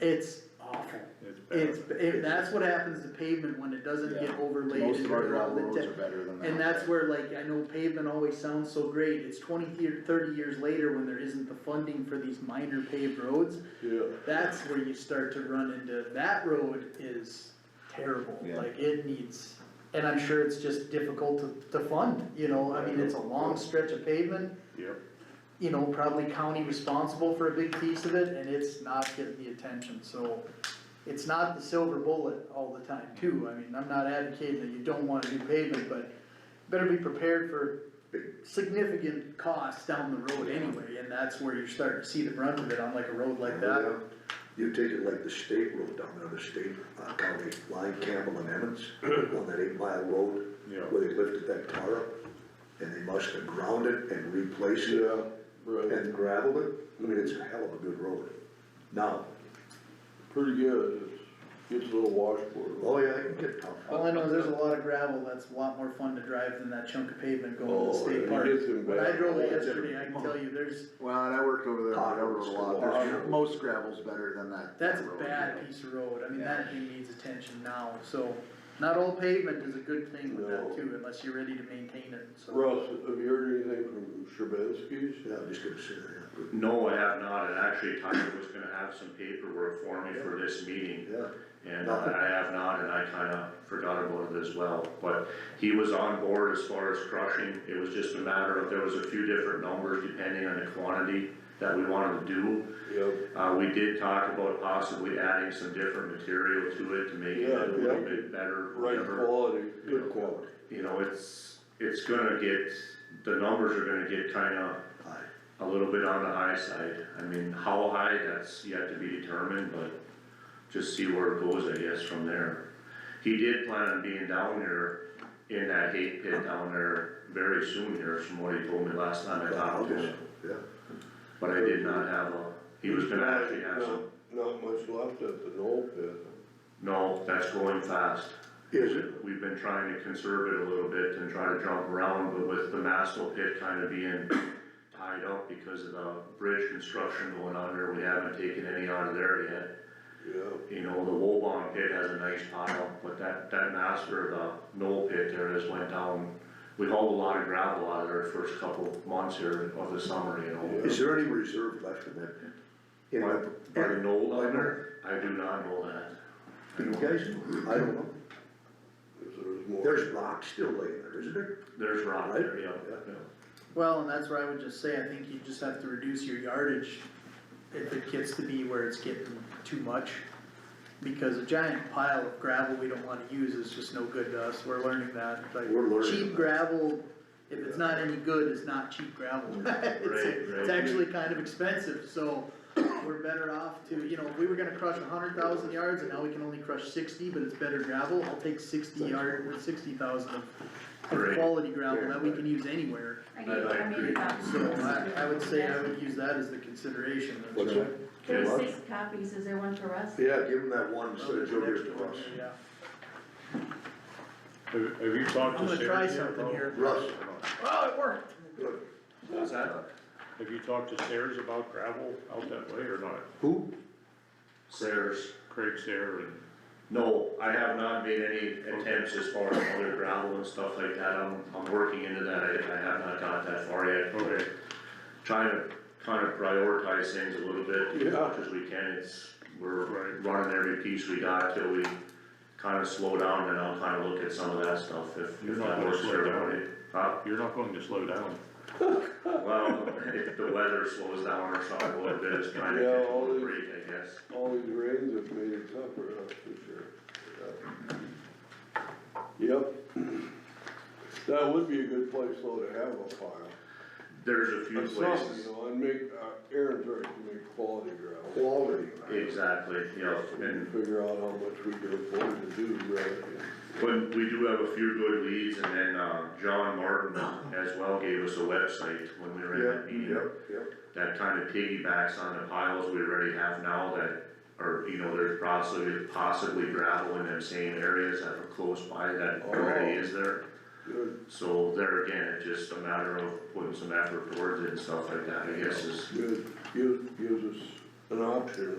It's awful. It's bad. It's, it, that's what happens to pavement when it doesn't get Yeah. overlaid. Most and of our dirt all gravel the roads ti- are better than that. And that's where like, I know pavement always sounds so great, it's twenty, year- thirty years later when there isn't the funding for these minor paved roads, Yeah. that's where you start to run into, that road is terrible, Yeah. like it needs, and I'm sure it's just difficult to, to fund, you know, I mean, it's a long stretch of pavement, Yep, you know, probably county responsible for a big piece of it, and it's not getting the attention, so. It's not the silver bullet all the time too, I mean, I'm not advocating that you don't wanna do pavement, but better be prepared for significant costs down the road anyway, and that's where you're starting to see the brunt of it on like a road like that. You take it like the state road down there, the state, uh, county line, Campbell and Emmons, on that eight mile road, Yeah. where they lifted that tar up, and they must have ground it and replaced it, Right, and gravelled it, I mean, it's a hell of a good road. Now, pretty good, it's, gets a little washboard. oh yeah, it can get tough, All I know, is there's a lot of gravel that's a lot more fun to drive than that chunk of pavement going to the Oh, yeah, state it park. gets in When I bad. drove it yesterday, I can tell you, there's, Well, and I worked over there, Hot I rode a lot, roads. There's- most gravel's better than that. that's a road. bad piece of road, I mean, Yeah. that thing needs attention now, so. Not all pavement is a good thing with that No. too, unless you're ready to maintain it, so. Russ, have you heard anything from Shabansky's? yeah, I'm just gonna say that, No, I have not, and actually Tyler was gonna have some paperwork for me for this meeting, yeah. and uh, I have not, and I kinda forgot about it as well. But he was on board as far as crushing, it was just a matter of, there was a few different numbers depending on the quantity that we wanted to do. Yep. Uh, we did talk about possibly adding some different material to it to make it Yeah, a little yeah. bit better, Right whatever quality, good quality. you know, it's, it's gonna get, the numbers are gonna get kinda High. a little bit on the high side. I mean, how high, that's yet to be determined, but just see where it goes, I guess, from there. He did plan on being down there in that hate pit down there very soon here, from what he told me last time I talked to him. Yeah. But I did not have a, he was gonna actually have some, Not- Not much left at the Knoll pit. no, that's going fast. Is it? We've been trying to conserve it a little bit and try to jump around, but with the Mastel pit kind of being tied up because of the bridge construction going on there, we haven't taken any out of there yet. Yeah, You know, the Wobong pit has a nice pile, but that, that master, the Knoll pit there has went down. We hauled a lot of gravel out of there first couple months here of the summer, you know. Is there any reserve left in that? In By, that- by the Knoll By down Knoll? there, I do not know that. Do you guys know? I don't know, if there's more. there's rock still laying there, isn't there? There's rock there, yeah, yeah. Well, and that's where I would just say, I think you just have to reduce your yardage if it gets to be where it's getting too much. Because a giant pile of gravel we don't wanna use is just no good to us, we're learning that, like, We're learning cheap that. gravel, if it's not any good, it's not cheap gravel. It's, right. it's actually kind of expensive, so we're better off to, you know, if we were gonna crush a hundred thousand yards and now we can only crush sixty, but it's better gravel, I'll take sixty yard, or sixty thousand of of Right. quality gravel that we can use anywhere. I um, gave, I made it up. So I, I would say um, I would use that as the consideration. of- What's that? There's six copies, is there one for us? Yeah, give them that one instead Well, of there's an Joe gives extra to one us. there, yeah. have, have you talked I'm to Sarah? gonna try yet something about- here. Russ, Oh, it worked. What's that? Have you talked to Sayers about gravel out that way or not? who? Stairs. Craig Sayer and, No, I have not made any attempts as far as other gravel and stuff like that, I'm, I'm working into that, I, I have not got that far yet. okay, Trying to kind of prioritize things a little bit, as Yeah. much as we can, it's, we're Right. running every piece we got till we kind of slow down, and I'll kind of look at some of that stuff, if, You're if not that gonna works slow for down. everybody. Huh? you're not going to slow down. Well, if the weather slows down or something a little bit, it's trying to Yeah, catch a all little the- break, I guess. All these rains have made it tougher, that's for sure. Yeah. Yep. That would be a good place though to have a pile. There's a few Of places. some, You know, and make, uh, Aaron's right, to make quality gravel. Quality. Exactly, yeah, and Figure out how much we can afford to do rather than. But we do have a few good leads, and then, uh, John Martin as well gave us a website when we were in that meeting. That kinda piggybacks on the piles we already have now that, are you know, there's possibly, possibly gravel in them same areas that are close by that already is there. Good, So there again, it's just a matter of putting some effort towards it and stuff like that, I guess is good, gives, gives us an option,